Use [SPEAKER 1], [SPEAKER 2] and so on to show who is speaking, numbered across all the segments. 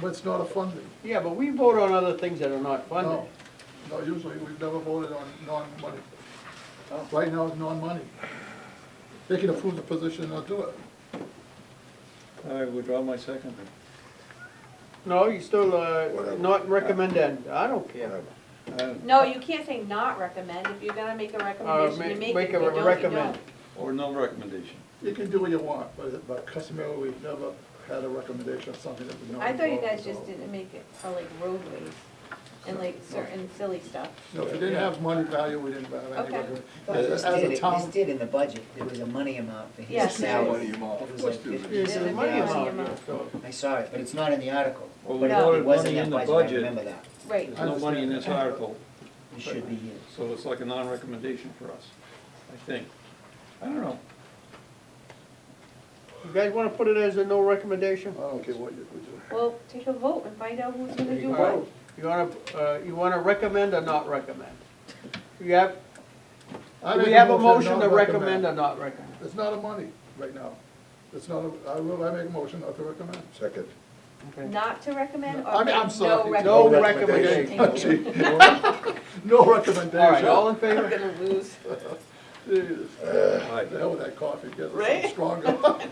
[SPEAKER 1] but it's not a funding.
[SPEAKER 2] Yeah, but we vote on other things that are not funded.
[SPEAKER 1] No, no, usually we've never voted on non-money.
[SPEAKER 2] Oh.
[SPEAKER 1] Right now it's non-money. They can approve the position or do it.
[SPEAKER 3] I withdraw my second.
[SPEAKER 2] No, you still, uh,
[SPEAKER 4] Whatever.
[SPEAKER 2] not recommended, I don't care.
[SPEAKER 3] Uh,
[SPEAKER 5] No, you can't say not recommend, if you're gonna make a
[SPEAKER 2] Uh,
[SPEAKER 5] recommendation,
[SPEAKER 2] make,
[SPEAKER 5] you make it, if
[SPEAKER 2] make
[SPEAKER 5] you
[SPEAKER 2] a
[SPEAKER 5] don't, you
[SPEAKER 2] recommend.
[SPEAKER 5] don't.
[SPEAKER 3] Or no recommendation.
[SPEAKER 1] You can do what you want, but, but customarily, we've never had a recommendation of something that we know.
[SPEAKER 5] I thought you
[SPEAKER 1] involved
[SPEAKER 5] guys
[SPEAKER 1] at
[SPEAKER 5] just
[SPEAKER 1] all.
[SPEAKER 5] didn't make it for like roadways and like certain silly stuff.
[SPEAKER 1] No, if it didn't have money value, we didn't have any
[SPEAKER 5] Okay.
[SPEAKER 1] recommendation.
[SPEAKER 6] This
[SPEAKER 1] As as
[SPEAKER 6] did,
[SPEAKER 1] a
[SPEAKER 6] it- this
[SPEAKER 1] town,
[SPEAKER 6] did in the budget, there was a money amount for his
[SPEAKER 5] Yes.
[SPEAKER 6] salary.
[SPEAKER 4] Money
[SPEAKER 6] It
[SPEAKER 4] amount.
[SPEAKER 6] was
[SPEAKER 4] Of course
[SPEAKER 6] like
[SPEAKER 4] there is.
[SPEAKER 6] fifty
[SPEAKER 2] There's a
[SPEAKER 5] Yeah,
[SPEAKER 6] something
[SPEAKER 5] then
[SPEAKER 2] money
[SPEAKER 5] there's
[SPEAKER 6] thousand.
[SPEAKER 5] money
[SPEAKER 2] amount here,
[SPEAKER 5] amount.
[SPEAKER 2] so.
[SPEAKER 6] I saw it, but it's not in the article.
[SPEAKER 3] Well, we
[SPEAKER 5] No.
[SPEAKER 6] It
[SPEAKER 3] voted
[SPEAKER 6] was in
[SPEAKER 3] money in
[SPEAKER 6] that
[SPEAKER 3] the
[SPEAKER 6] budget, I
[SPEAKER 3] budget.
[SPEAKER 6] remember that.
[SPEAKER 5] Right,
[SPEAKER 3] There's no money in this article,
[SPEAKER 6] It should be used.
[SPEAKER 3] so it's like a non-recommendation for us, I think. I don't know.
[SPEAKER 2] You guys wanna put it as a no recommendation?
[SPEAKER 1] I don't care what you, we do.
[SPEAKER 5] well, take a vote and find out who's gonna do
[SPEAKER 2] All right.
[SPEAKER 5] what.
[SPEAKER 2] You wanna, uh, you wanna recommend or not recommend? You have,
[SPEAKER 1] I
[SPEAKER 2] do
[SPEAKER 1] make
[SPEAKER 2] we have a
[SPEAKER 1] not
[SPEAKER 2] motion to recommend or not recommend?
[SPEAKER 1] It's not a money right now. It's not, a- I will, I make a motion not to recommend.
[SPEAKER 4] Second.
[SPEAKER 2] Okay.
[SPEAKER 5] Not to recommend
[SPEAKER 1] I
[SPEAKER 5] or
[SPEAKER 1] mean,
[SPEAKER 5] make
[SPEAKER 1] I'm sorry.
[SPEAKER 5] no
[SPEAKER 2] No
[SPEAKER 5] recommendation.
[SPEAKER 2] recommendation.
[SPEAKER 5] Thank you.
[SPEAKER 1] No
[SPEAKER 2] All right,
[SPEAKER 1] recommendation.
[SPEAKER 2] all in favor?
[SPEAKER 5] I'm gonna lose.
[SPEAKER 1] Jeez,
[SPEAKER 3] Aye.
[SPEAKER 1] The hell with that coffee, get
[SPEAKER 5] Right?
[SPEAKER 1] it stronger.
[SPEAKER 5] Yowzers.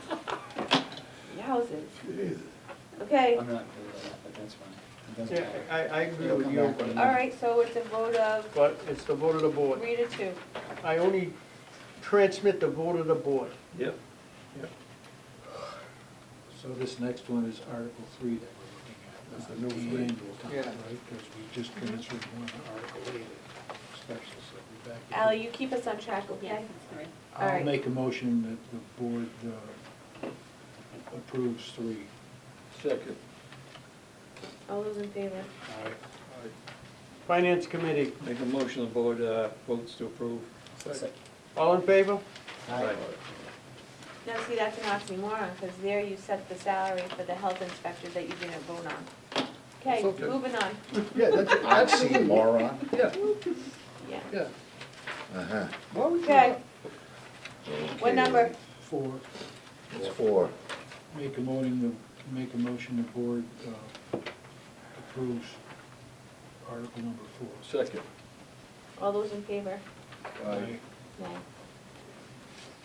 [SPEAKER 1] Jeez.
[SPEAKER 5] Okay,
[SPEAKER 6] I'm not clear with that, but that's fine. It doesn't
[SPEAKER 2] Yeah,
[SPEAKER 6] matter.
[SPEAKER 2] I, I agree
[SPEAKER 6] It'll
[SPEAKER 2] with
[SPEAKER 6] come
[SPEAKER 2] you,
[SPEAKER 6] back
[SPEAKER 2] but-
[SPEAKER 6] to
[SPEAKER 5] all right, so it's a vote of
[SPEAKER 2] but it's the vote of the board.
[SPEAKER 5] three to two.
[SPEAKER 2] I only transmit the vote of the board.
[SPEAKER 3] Yep.
[SPEAKER 7] So this next one is Article Three that we're
[SPEAKER 1] That's the
[SPEAKER 7] looking
[SPEAKER 1] new
[SPEAKER 7] at, not
[SPEAKER 1] three.
[SPEAKER 7] the annual town,
[SPEAKER 2] Yeah.
[SPEAKER 7] right? Because we
[SPEAKER 5] Mm-hmm.
[SPEAKER 7] just transferred one to Article Eight, at special, so we're back. to-
[SPEAKER 5] Al, you keep us on track, okay? all
[SPEAKER 7] I'll
[SPEAKER 5] right.
[SPEAKER 7] make a motion that the board uh, approves three.
[SPEAKER 3] Second.
[SPEAKER 5] All those in favor?
[SPEAKER 2] Finance committee,
[SPEAKER 3] Make a motion, the board uh, votes to approve.
[SPEAKER 1] Second.
[SPEAKER 2] all in favor?
[SPEAKER 6] Aye.
[SPEAKER 5] Now, see, that's an oxymoron, because there you set the salary for the health inspector that you didn't vote on. Okay,
[SPEAKER 1] It's okay.
[SPEAKER 5] moving on,
[SPEAKER 1] Yeah, that's,
[SPEAKER 4] I've seen
[SPEAKER 1] absolutely,
[SPEAKER 4] moron.
[SPEAKER 1] yeah,
[SPEAKER 5] yeah.
[SPEAKER 1] yeah.
[SPEAKER 4] Uh-huh.
[SPEAKER 1] Why would you
[SPEAKER 5] Okay,
[SPEAKER 4] Okay.
[SPEAKER 5] what number?
[SPEAKER 7] Four,
[SPEAKER 4] It's four.
[SPEAKER 7] make a motion, to make a motion the board uh, approves Article number four.
[SPEAKER 3] Second.
[SPEAKER 5] All those in favor?
[SPEAKER 4] Aye.
[SPEAKER 5] Nay.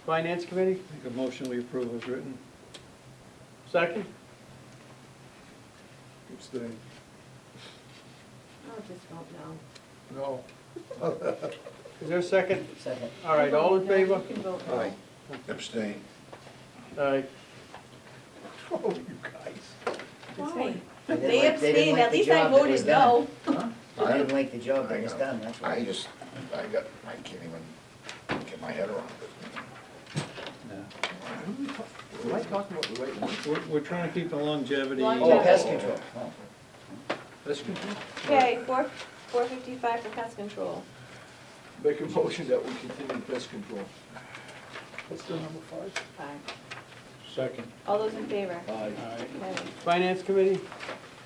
[SPEAKER 2] Finance committee,
[SPEAKER 3] Make a motion, we approve as written.
[SPEAKER 2] second?
[SPEAKER 1] Abstain.
[SPEAKER 5] I'll just vote no.
[SPEAKER 1] No,
[SPEAKER 2] Is there a second?
[SPEAKER 6] Second.
[SPEAKER 2] All right, all in
[SPEAKER 5] No,
[SPEAKER 2] favor?
[SPEAKER 5] You can vote no.
[SPEAKER 4] Aye. Abstain.
[SPEAKER 2] All right,
[SPEAKER 1] oh, you guys.
[SPEAKER 5] Why?
[SPEAKER 6] They
[SPEAKER 5] They
[SPEAKER 6] didn't like- they didn't
[SPEAKER 5] abstained,
[SPEAKER 6] like
[SPEAKER 5] at
[SPEAKER 6] the
[SPEAKER 5] least I
[SPEAKER 6] job that was
[SPEAKER 5] voted
[SPEAKER 6] done.
[SPEAKER 5] no.
[SPEAKER 6] I didn't like the job that was
[SPEAKER 4] I know.
[SPEAKER 6] done, that's
[SPEAKER 4] I
[SPEAKER 6] why.
[SPEAKER 4] just, I got, I can't even get my head around it.
[SPEAKER 3] Yeah.
[SPEAKER 4] Am I talking about the right one?
[SPEAKER 3] We're, we're trying to keep the longevity.
[SPEAKER 6] Oh,
[SPEAKER 5] Longevity.
[SPEAKER 6] pest control. Oh.
[SPEAKER 3] Pest control?
[SPEAKER 5] Okay, four, four fifty-five for pest control.
[SPEAKER 4] Make a motion that we continue pest control.
[SPEAKER 1] What's the number five?
[SPEAKER 5] Fine.
[SPEAKER 7] Second.
[SPEAKER 5] All those in favor?
[SPEAKER 4] Aye.
[SPEAKER 7] Aye.
[SPEAKER 5] Okay.
[SPEAKER 2] finance committee,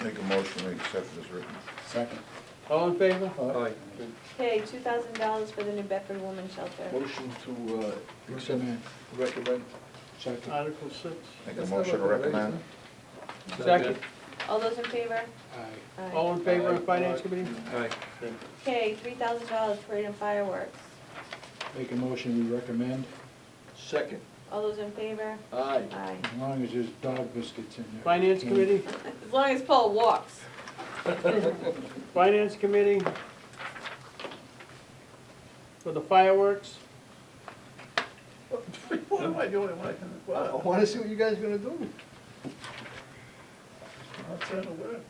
[SPEAKER 4] Make a motion, we accept as written.
[SPEAKER 6] Second.
[SPEAKER 2] all in favor?
[SPEAKER 3] Aye.
[SPEAKER 5] Okay, two thousand dollars for the New Bedford Woman Shelter.
[SPEAKER 4] Motion to
[SPEAKER 7] Recommend.
[SPEAKER 4] recommend.
[SPEAKER 7] Second.
[SPEAKER 2] Article six,
[SPEAKER 4] Make a
[SPEAKER 1] That's
[SPEAKER 4] motion to
[SPEAKER 1] not recommendation.
[SPEAKER 4] recommend.
[SPEAKER 2] second,
[SPEAKER 5] All those in favor?
[SPEAKER 7] Aye.
[SPEAKER 5] Aye.
[SPEAKER 2] all in favor of finance
[SPEAKER 1] Aye.
[SPEAKER 2] committee?
[SPEAKER 3] Aye.
[SPEAKER 5] Okay, three thousand dollars parade and fireworks.
[SPEAKER 7] Make a motion, we recommend,
[SPEAKER 4] Second.
[SPEAKER 5] All those in favor?
[SPEAKER 4] Aye.
[SPEAKER 5] Aye.
[SPEAKER 7] as long as there's dog biscuits in there.
[SPEAKER 2] Finance committee,
[SPEAKER 5] As long as Paul walks.
[SPEAKER 2] finance committee for the fireworks,
[SPEAKER 1] What am I doing when Oh, I can,
[SPEAKER 4] I
[SPEAKER 1] wow,
[SPEAKER 4] wanna see what you guys are gonna do.
[SPEAKER 1] I'm trying to learn.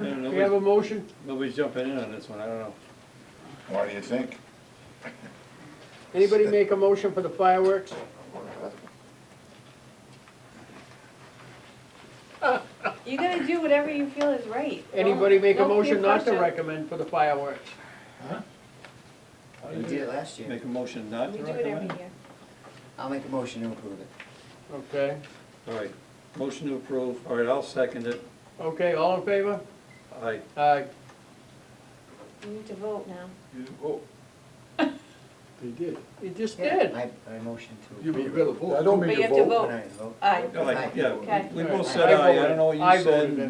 [SPEAKER 3] I don't know,
[SPEAKER 2] we have a motion,
[SPEAKER 3] Nobody's jumping in on this one, I don't know.
[SPEAKER 4] What do you think?
[SPEAKER 2] anybody make a motion for the fireworks?
[SPEAKER 5] You gotta do whatever you feel is right.
[SPEAKER 2] Anybody make a
[SPEAKER 5] Don't- don't be
[SPEAKER 2] motion not to
[SPEAKER 5] pressure.
[SPEAKER 2] recommend for the fireworks?
[SPEAKER 6] We did it last year.
[SPEAKER 3] Make a motion not
[SPEAKER 5] We
[SPEAKER 3] to
[SPEAKER 5] do it every
[SPEAKER 3] recommend?
[SPEAKER 5] year.
[SPEAKER 6] I'll make a motion to approve it.
[SPEAKER 2] Okay,
[SPEAKER 3] All right, motion to approve, all right, I'll second it.
[SPEAKER 2] okay, all in favor? Uh,
[SPEAKER 3] Aye.
[SPEAKER 2] Aye.
[SPEAKER 5] You need to vote now.
[SPEAKER 4] Oh,
[SPEAKER 7] They did.
[SPEAKER 2] You just did.
[SPEAKER 6] I, I motion to
[SPEAKER 4] you
[SPEAKER 6] approve.
[SPEAKER 4] mean you gotta vote?
[SPEAKER 1] I don't mean
[SPEAKER 5] But
[SPEAKER 1] to
[SPEAKER 5] you
[SPEAKER 1] vote.
[SPEAKER 5] have to vote.
[SPEAKER 6] Aye, vote.
[SPEAKER 5] Aye.
[SPEAKER 3] Aye, yeah, we- we both
[SPEAKER 2] Okay.
[SPEAKER 3] said aye, I don't know what
[SPEAKER 2] I
[SPEAKER 3] you
[SPEAKER 2] voted
[SPEAKER 3] said.